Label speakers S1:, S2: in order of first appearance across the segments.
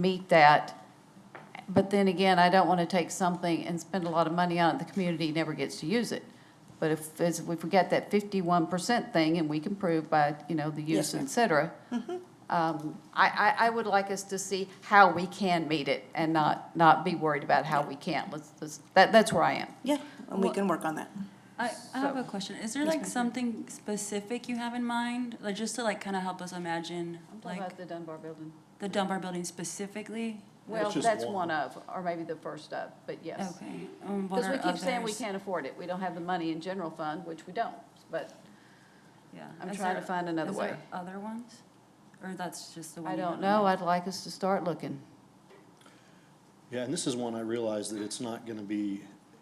S1: meet that. But then again, I don't want to take something and spend a lot of money on it, the community never gets to use it. But if, as- if we forget that fifty-one percent thing, and we can prove by, you know, the
S2: Yes,
S1: use, et cetera, um, I, I, I would like us to see how we can meet it and not, not be worried about how we can't. Let's, let's- that, that's where I am.
S2: Yeah, and we
S3: Well-
S2: can work on that.
S3: I, I have
S1: So-
S3: a question. Is there like something specific you have in mind, like just to like kind of help us imagine, like
S1: the Dunbar building.
S3: the Dunbar building specifically?
S1: Well,
S4: just
S1: that's
S4: one.
S1: one of, or maybe the first of, but yes.
S3: Okay. Um, what
S1: Because we
S3: are
S1: keep saying we
S3: others?
S1: can't afford it. We don't have the money in general fund, which we don't, but
S3: Yeah.
S1: I'm
S3: Is
S1: trying to
S3: there-
S1: find another
S3: is there
S1: way.
S3: Other ones, or that's just the one?
S1: I
S3: you have
S1: don't
S3: in
S1: know.
S3: mind?
S1: I'd like us to start looking.
S4: Yeah, and this is one I realize that it's not gonna be,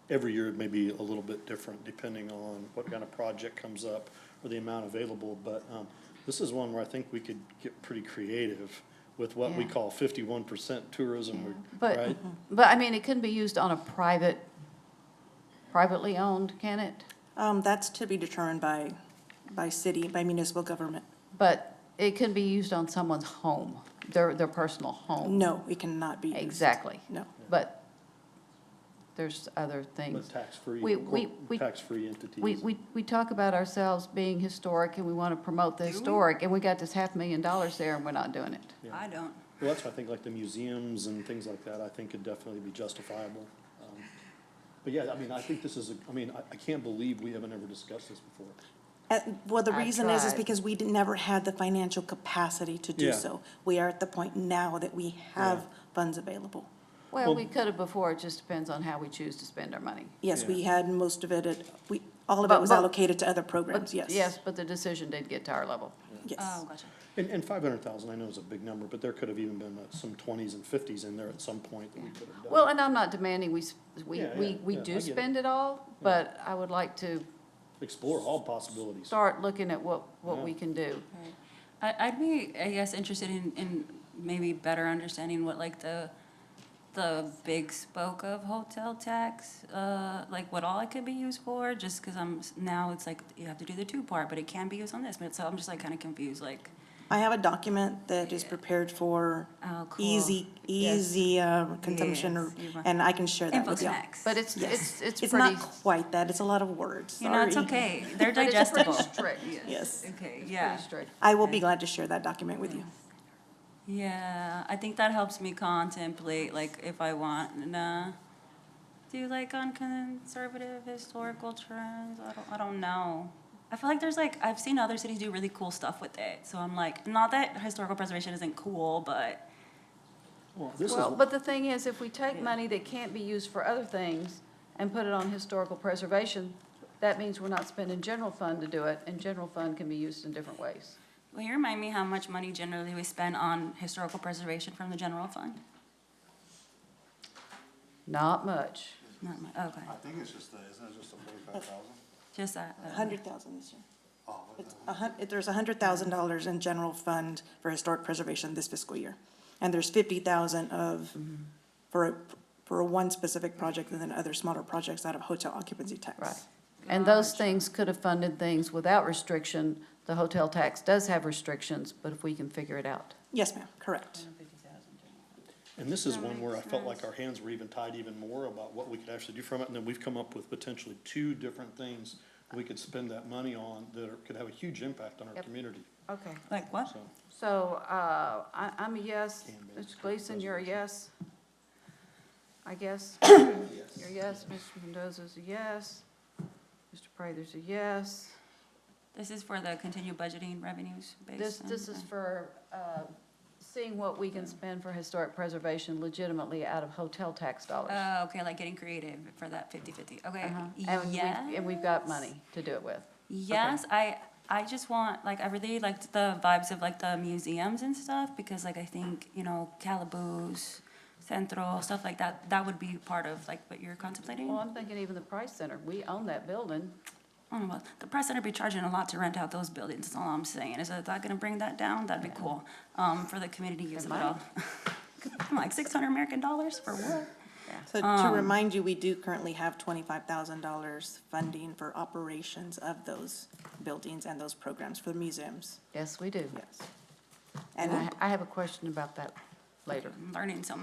S4: every year it may be a little bit different depending on what kind of project comes up or the amount available, but, um, this is one where I think we could get pretty creative with what we
S1: Yeah.
S4: call fifty-one percent tourism,
S1: But,
S4: right?
S1: but I mean, it couldn't be used on a private, privately owned, can it?
S2: Um, that's to be determined by, by city, by municipal government.
S1: But it can be used on someone's home, their, their personal home.
S2: No, it cannot be used.
S1: Exactly.
S2: No.
S1: But there's other things.
S4: But tax-free,
S1: We- we-
S4: corp-
S1: we-
S4: tax-free
S1: We,
S4: entities.
S1: we, we talk about ourselves being historic and we want to promote the
S3: we?
S1: historic, and we got this half million dollars there and we're not doing it.
S4: Yeah.
S3: I don't.
S4: Well, that's, why I think, like the museums and things like that, I think could definitely be justifiable. Um, But yeah, I mean, I think this is, a- I mean, I, I can't believe we haven't ever discussed this before.
S2: Uh, Well, the
S1: I
S2: reason is, is
S1: tried.
S2: because we didn't- never had the financial capacity to do
S4: Yeah.
S2: so. We are at the point now that we have funds available.
S1: Well,
S4: Well-
S1: we could have before, it just depends on how we choose to spend our money.
S2: Yes, we
S4: Yeah.
S2: had most of it, at we, all of it
S1: But-
S2: was
S1: but-
S2: allocated to other
S1: But
S2: programs, yes.
S1: Yes, Um, but the decision did get to our level.
S2: Yes.
S3: Oh, gotcha.
S4: And, and five hundred thousand, I know is a big number, but there could have even been uh, some twenties and fifties in there at some point that we could have done.
S1: Well, and I'm not demanding we, s- we,
S4: Yeah, yeah,
S1: we, we
S4: yeah, I
S1: do
S4: get it.
S1: spend it all, but I would like to
S4: Explore all possibilities.
S1: start looking at what, what
S4: Yeah.
S1: we can do.
S3: Right. I, I'd be, I guess, interested in, in maybe better understanding what like the, the big spoke of hotel tax, uh, like what all it could be used for, just because I'm, s- now it's like, you have to do the two part, but it can be used on this, but so I'm just like kind of confused, like,
S2: I have a document that is prepared for
S3: oh, cool.
S2: easy, easy uh, consumption, or-
S3: Yes, you might.
S2: and I can share that
S3: Info
S2: with you.
S3: tax.
S1: But it's,
S2: Yes.
S1: it's, it's
S2: It's
S1: pretty,
S2: not quite that, it's a lot of words,
S3: You know, it's
S2: sorry.
S3: okay, they're
S1: but it's pretty
S3: digestible.
S1: strict.
S2: Yes.
S3: Okay,
S1: Pretty
S3: yeah.
S1: strict.
S2: I will be glad to share that document with you.
S3: Yeah, I think that helps me contemplate, like, if I want to do like on conservative historical trends. I don't, I don't know. I feel like there's like, I've seen other cities do really cool stuff with it. So I'm like, not that historical preservation isn't cool, but
S4: Well, this is,
S1: Well,
S4: well,
S1: but the thing is, if we take money that can't be used for other things and put it on historical preservation, that means we're not spending general fund to do it, and general fund can be used in different ways.
S3: will you remind me how much money generally we spend on historical preservation from the general fund?
S1: Not much.
S3: Not my, okay,
S5: I think it's just, the- isn't it just the forty-five thousand?
S3: just that. uh,
S2: 100,000 this year.
S5: Oh, what
S2: It's
S5: the-
S2: a hun, there's $100,000 in general fund for historic preservation this fiscal year. And there's 50,000 of, for, for one specific project and then other smaller projects out of hotel occupancy tax.
S1: Right. And those things could have funded things without restriction. The hotel tax does have restrictions, but if we can figure it out.
S2: Yes, ma'am, correct.
S4: and this is one where I felt like our hands were even tied even more about what we could actually do from it. And then we've come up with potentially two different things we could spend that money on that are- could have a huge impact on our
S1: Yep.
S4: community,
S1: Okay.
S3: Like what?
S4: so.
S1: So, uh, I, I'm a yes.
S4: And
S1: Mr.
S4: Mr.
S1: Gleason, you're a yes? I guess. You're a yes. Mr. Mendoza's a yes. Mr. Prather's a yes.
S3: This is for the continued budgeting revenues based
S1: This,
S3: on-
S1: this is
S3: uh,
S1: for, uh, seeing what we can spend for historic preservation legitimately out of hotel tax dollars.
S3: Oh, okay, like getting creative for that 50/50, okay,
S1: Uh-huh. And we,
S3: yeah.
S1: and we've got money to do it with.
S3: Yes, I, I just want, like, I really liked the vibes of like the museums and stuff, because like I think, you know, Calaboose, Centro, stuff like that, that would be part of like what you're contemplating.
S1: Well,
S3: I
S1: I'm thinking even the Price Center, we own that building.
S3: don't know, Oh, the press center be charging a lot to rent out those buildings, that's all I'm saying, is that that gonna bring that down? That'd be cool, um, for the community use of it
S1: might.
S3: all. Like six hundred American dollars for what?
S2: So to remind you, we do currently have $25,000 funding for operations of those buildings and those programs for the museums,
S1: Yes, we do.
S2: yes.
S1: And I,
S2: And
S1: I have a question about that later.
S3: I'm learning so